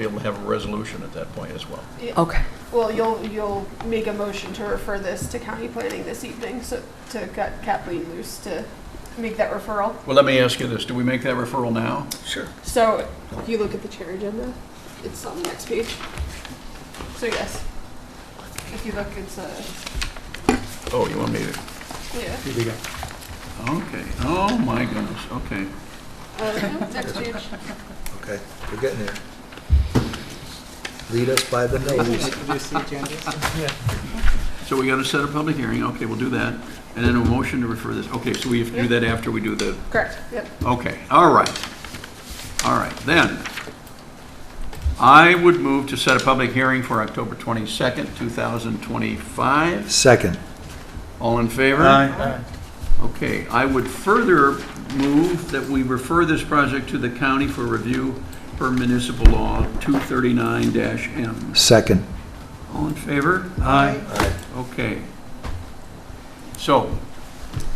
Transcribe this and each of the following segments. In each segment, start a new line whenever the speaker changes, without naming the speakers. be able to have a resolution at that point as well.
Okay.
Well, you'll, you'll make a motion to refer this to county planning this evening, so to cut Kathleen loose to make that referral.
Well, let me ask you this, do we make that referral now?
Sure.
So if you look at the chair agenda, it's on the next page. So yes, if you look, it's a,
Oh, you want me to,
yeah,
Here we go.
okay, oh my goodness, okay.
uh, next page.
Okay, we're getting there. Lead us by the nose.
So we got to set a public hearing, okay, we'll do that, and then a motion to refer this, okay, so we have to do that after we do the,
Correct, yep.
okay, all right. All right, then, I would move to set a public hearing for October 22nd, 2025.
Second,
All in favor? Okay, I would further move that we refer this project to the county for review per municipal law 239-M.
second.
All in favor? Aye. Okay. So,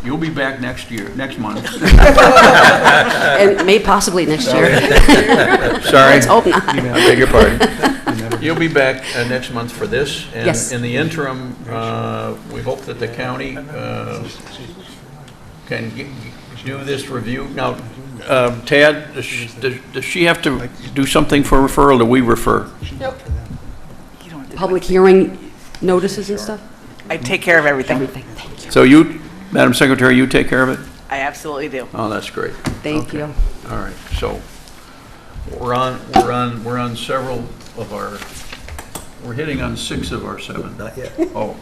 you'll be back next year, next month.
And may possibly next year.
Sorry.
Let's hope not.
I beg your pardon. You'll be back uh, next month for this. and
Yes.
In the interim, uh, we hope that the county uh, can g- do this review. Now, um, Tad, does sh- does does she have to do something for referral, or do we refer?
Nope.
Public hearing notices and stuff?
I take care of everything.
Everything. Thank you.
So you, Madam Secretary, you take care of it?
I absolutely do.
Oh, that's great.
Thank
Okay.
you.
All right, so we're on, we're on, we're on several of our, we're hitting on six of our seven.
Not yet.
Oh.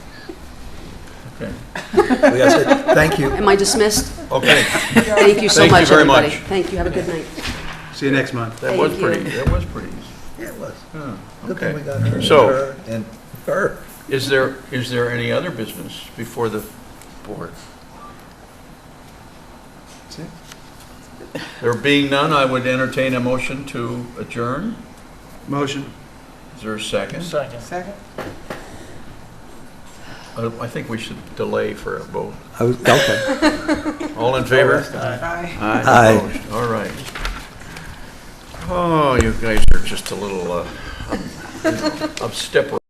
Okay.
We gotta say, Thank you.
Am I dismissed?
Okay.
Thank you so
Thank you
much,
very
everybody.
much.
Thank you. Have a good night.
See you next month.
That was
Thank you.
pretty, that was pretty.
Yeah, it was.
Huh,
Good thing we
Okay.
got her. and
So-
her And her.
Is there, is there any other business before the board? There being none, I would entertain a motion to adjourn.
Motion.
Is there a second? Second. Second. Uh, I think we should delay for a vote.
I was, okay.
All in favor?
Bye.
Aye.
Opposed? All right. Oh, you guys are just a little, uh, up- upstepper.